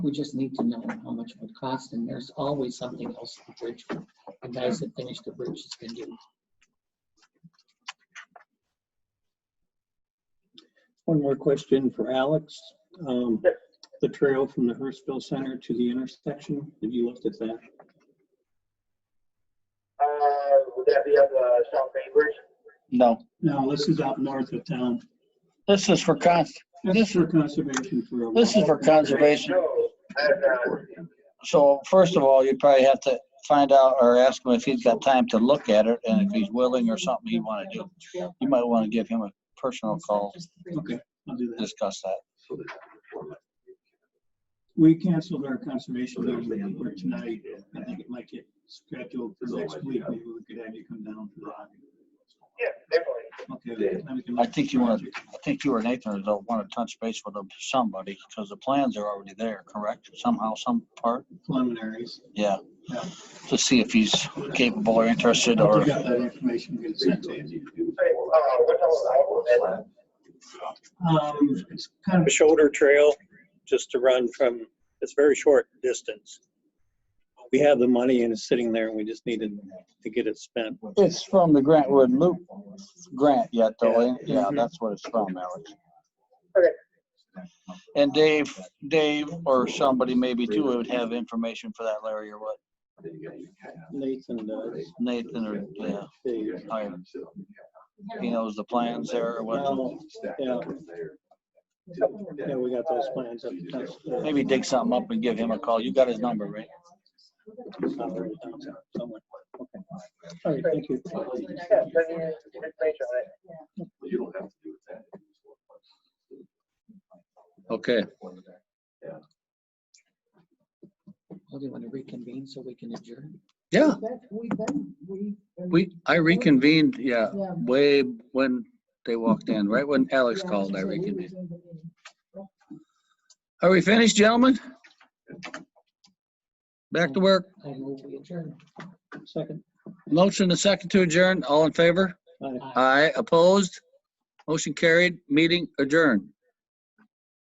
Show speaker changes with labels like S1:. S1: We just need to know how much it would cost, and there's always something else the bridge, the guys that finish the bridges can do.
S2: One more question for Alex. Um,
S3: Yep.
S2: The trail from the Hurstville Center to the intersection, have you looked at that?
S3: Uh, would that be on the South Main Bridge?
S4: No,
S2: No, this is out north of town.
S4: this is for con,
S2: This is for conservation for. a-
S4: this is for conservation.
S3: No, uh, I have not.
S4: So first of all, you probably have to find out or ask him if he's got time to look at it and if he's willing or something he'd want to do. You might want to give him a personal call,
S2: Okay, I'll do that.
S4: discuss that.
S2: We canceled our conservation meeting for tonight. I think it might get scheduled for next week. Maybe we could have you come down for that.
S3: Yeah, definitely.
S2: Okay. then we can-
S4: I think you wanna- I think you or Nathan don't want to touch base with somebody because the plans are already there, correct? Somehow, some part,
S2: Preliminaries.
S4: yeah.
S2: Yeah.
S4: To see if he's capable or interested
S2: If
S4: or
S2: you got that information, get it sent to you.
S3: Say, uh, what's all the outlet?
S2: Um, it's kind
S5: a
S2: of,
S5: shoulder trail just to run from, it's very short distance. We have the money and it's sitting there and we just needed to get it spent.
S4: It's from the Grant Wood Loop grant yet, though. ain't it? Yeah,
S5: Mhm.
S4: that's what it's from, Alex.
S3: Okay.
S4: And Dave, Dave or somebody maybe too would have information for that, Larry, or what?
S2: Nathan does.
S4: Nathan or, yeah,
S2: They-
S4: I- he knows the plans there or what.
S2: Well, Yeah, yeah, we got those plans up. that's-
S4: Maybe dig something up and give him a call. You got his number, right?
S2: it's not very down somewhere. Okay. All right, thank you.
S3: Yeah, send me information on it.
S4: Okay.
S1: Well, do you want to reconvene so we can adjourn?
S4: Yeah,
S6: We,
S4: we, I reconvened, yeah,
S6: Yeah.
S4: way when they walked in, right when Alex
S6: Alex
S4: called, I reconvened.
S6: reconvened.
S4: Are we finished, gentlemen? Back to work.
S1: I move we adjourn.
S2: Second.
S4: Motion to second to adjourn. All in favor?
S2: Aye.
S4: Aye. Opposed? Motion carried. Meeting adjourned.